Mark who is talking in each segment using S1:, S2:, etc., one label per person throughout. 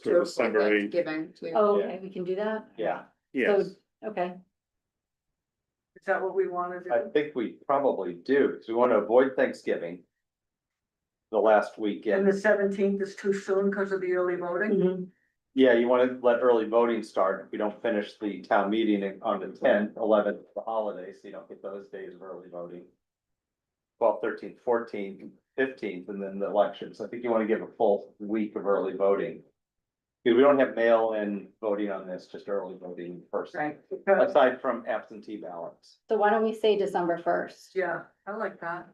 S1: to December eighth,
S2: Given to.
S3: Oh,
S4: Yeah.
S3: okay, we can do that?
S4: Yeah,
S1: yes.
S3: Okay,
S5: Is that what we want to
S4: I
S5: do?
S4: think we probably do, because we want to avoid Thanksgiving. The last
S5: And the
S4: weekend.
S5: seventeenth is too soon because of the early voting?
S3: Mhm.
S4: Yeah, you want to let early voting start. if We don't finish the town meeting on the tenth, eleventh, the holidays, so you don't get those days of early voting. 12th, 13th, 14th, 15th, and then the elections. I think you want to give a full week of early voting. Because we don't have mail in voting on this, just early voting in person,
S5: Right. Because,
S4: aside from absentee ballots.
S3: so why don't we say December first?
S5: yeah, I like that.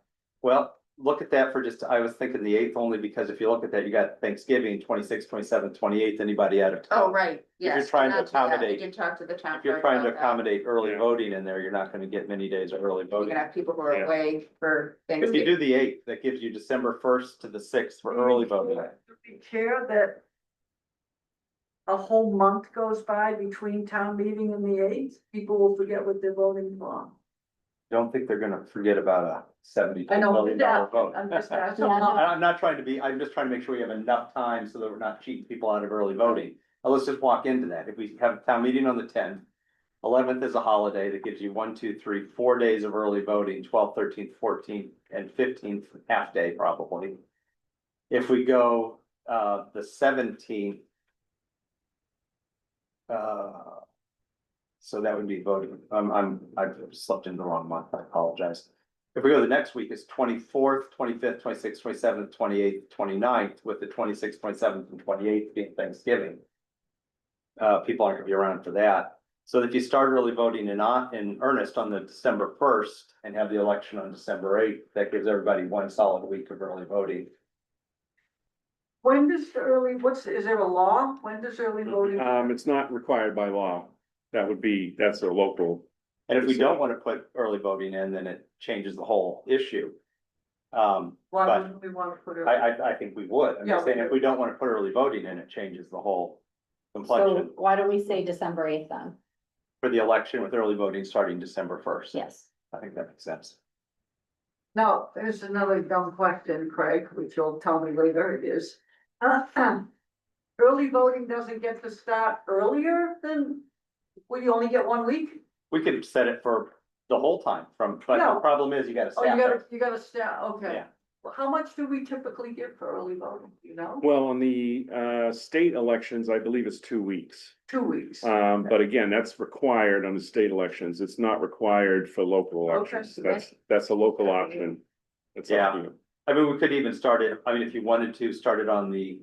S4: Well, look at that for just, I was thinking the eighth only because if you look at that, you got Thanksgiving, twenty-sixth, twenty-seventh, twenty-eighth, anybody out of town.
S2: Oh, right,
S4: you're
S2: yes.
S4: trying to
S2: not do that.
S4: accommodate-
S2: We can talk to the town.
S4: If you're
S2: clerk
S4: trying to
S2: about that.
S4: accommodate early
S1: Yeah.
S4: voting in there, you're not gonna get many days of early
S2: You're
S4: voting.
S2: gonna have people who are
S1: Yeah.
S2: away for
S4: If you
S2: Thanksgiving.
S4: do the eighth, that gives you December first to the sixth for early voting.
S5: Do we care that a whole month goes by between town meeting and the eighth? People will forget what they're voting for.
S4: Don't think they're gonna forget about a seventy
S5: I know,
S4: million dollar
S5: yeah,
S4: vote.
S5: I'm just asking.
S3: Yeah, no.
S4: And I'm not trying to be, I'm just trying to make sure we have enough time so that we're not cheating people out of early voting. Now, let's just walk into that. If we have a town meeting on the tenth, eleventh is a holiday that gives you one, two, three, four days of early voting, 12th, 13th, 14th, and fifteenth, half day probably. If we go, uh, the seventeenth. Uh, so that would be voting. I'm, I'm, I've slept in the wrong month. I apologize. If we go to the next week, it's twenty-fourth, twenty-fifth, twenty-sixth, twenty-seventh, twenty-eighth, 29th, with the twenty-sixth, twenty-seventh, and twenty-eighth being Thanksgiving. Uh, people aren't gonna be around for that. So if you start early voting in, on- in earnest on the December first and have the election on December eighth, that gives everybody one solid week of early voting.
S5: When does the early, what's, is there a law? When does early voting?
S4: Uh,
S1: Um, it's not required by law. That would be, that's a local,
S4: And if we don't wanna put early voting in, then it changes the whole issue. Um,
S5: Why
S4: but-
S5: wouldn't we want to put it?
S4: I, I, I think we would. I'm
S5: Yeah,
S4: just
S5: we
S4: saying, if
S5: do.
S4: we don't wanna put early voting in, it changes the whole complexion.
S3: So why don't we say December eighth then?
S4: for the election with early voting starting December first.
S3: Yes.
S4: I think that makes sense.
S5: Now, there's another dumb question, Craig, which you'll tell me later it is. uh, Early voting doesn't get to start earlier than, well, you only get one week?
S4: We could set it for the whole time from, but the
S5: No.
S4: problem is you gotta
S5: Oh, you
S4: staff
S5: gotta,
S4: it.
S5: you gotta start, okay.
S4: Yeah.
S5: How much do we typically get for early voting, you know?
S1: well, on the uh state elections, I believe it's two weeks.
S5: Two weeks.
S4: uh,
S1: Um, but again, that's required on the state elections. It's not required for local
S5: Okay.
S1: elections. That's, that's a local option. It's up to you.
S4: I mean, we could even start it, I mean, if you wanted to, start it on the.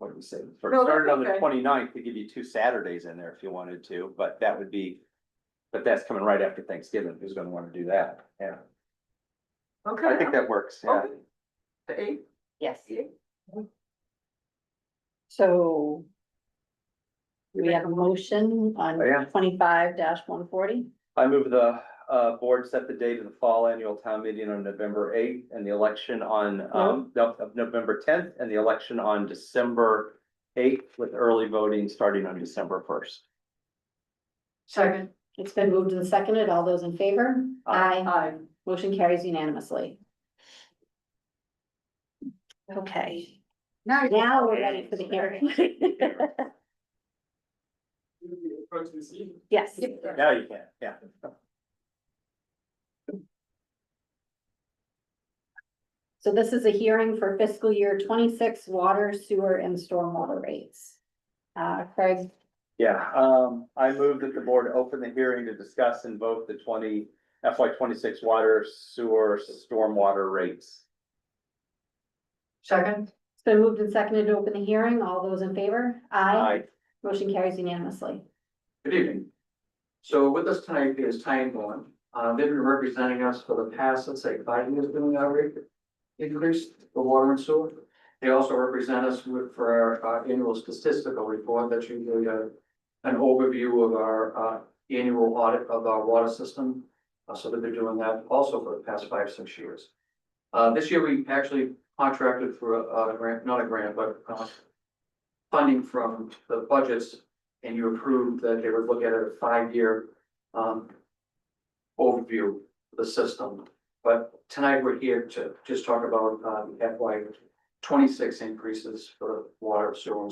S4: What did we say? Start
S5: No, that's
S4: start it on the
S5: okay.
S4: 29th to give you two Saturdays in there if you wanted to, but that would be. But that's coming right after Thanksgiving. Who's gonna wanna do that? Yeah, I
S5: Okay,
S4: think that works. Yeah.
S5: Okay. the eighth,
S3: Yes.
S5: Yeah.
S3: So we have a motion
S4: Oh, yeah.
S3: on twenty-five one forty.
S4: I move the uh board set the date of the fall annual town meeting on November eighth and the election on um no- of November tenth and the election on December eighth with early voting starting on December first.
S5: second,
S3: It's been moved and seconded. All those in favor?
S4: Aye.
S5: aye.
S3: Motion carries unanimously. Okay,
S2: Now you-
S3: now we're ready for the hearing. Yes.
S4: Now you can, yeah.
S3: So this is a hearing for fiscal year twenty-six water, sewer and stormwater rates. Uh, Craig,
S4: Yeah, um, I move that the board open the hearing to discuss and vote the twenty FY twenty-six water sewer stormwater rates.
S5: Second,
S3: it's been moved and seconded to open the hearing. All those in favor?
S4: Aye.
S3: Motion carries unanimously.
S6: Good evening. So with us tonight is Time Bond. Uh, they've been representing us for the past, let's say, five years doing our rate increase for water and sewer. They also represent us with, for our uh, annual statistical report that's usually uh an overview of our, uh, annual audit of our water system. Uh, so that they're doing that also for the past five, six years. Uh, this year we actually contracted for a, a grant, not a grant, but, uh, funding from the budgets and you approved that they would look at a five-year um overview of the system. But tonight we're here to just talk about um FY twenty-six increases for water, sewer, and